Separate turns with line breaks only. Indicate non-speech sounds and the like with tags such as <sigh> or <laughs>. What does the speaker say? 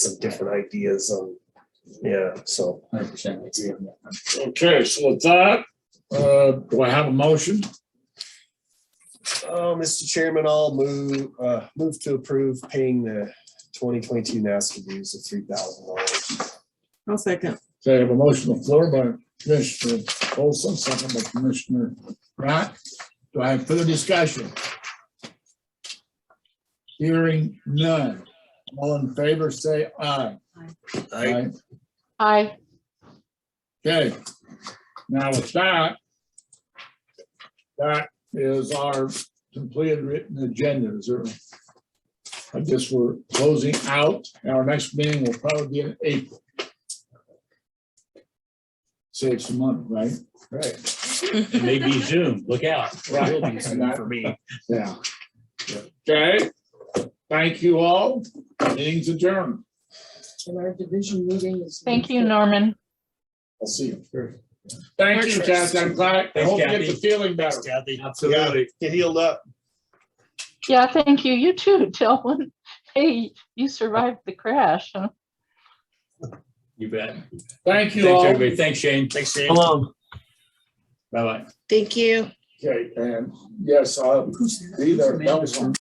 some different ideas on, yeah, so.
Hundred percent agree on that.
Okay, so with that, uh, do I have a motion?
Uh, Mr. Chairman, I'll move, uh, move to approve paying the twenty twenty-two NASCA dues of three thousand dollars.
I'll second.
Okay, I have a motion on the floor by Commissioner Olson, second by Commissioner Rock. Do I have further discussion? Hearing none. All in favor, say aye. Aye.
Aye.
Okay. Now with that, that is our completed written agenda. Is there? I guess we're closing out. Our next meeting will probably be in April. Save some money, right? Right.
Maybe Zoom, look out.
Right.
For me.
Yeah. Okay. Thank you all. Meeting's adjourned.
And our division meeting is.
Thank you, Norman.
I'll see you. Thank you, Kathy. I'm glad. I
Thanks,
hope you get
Kathy.
the feeling better.
Absolutely. Get healed up.
Yeah, thank you. You too, <laughs> Dylan. Hey, you survived the crash. huh?
You bet.
Thank you
Thanks,
all.
everybody. Thanks, Shane. Thanks, Shane. Bye-bye.
Thank you.
Okay, and yes, I'll be there. That was-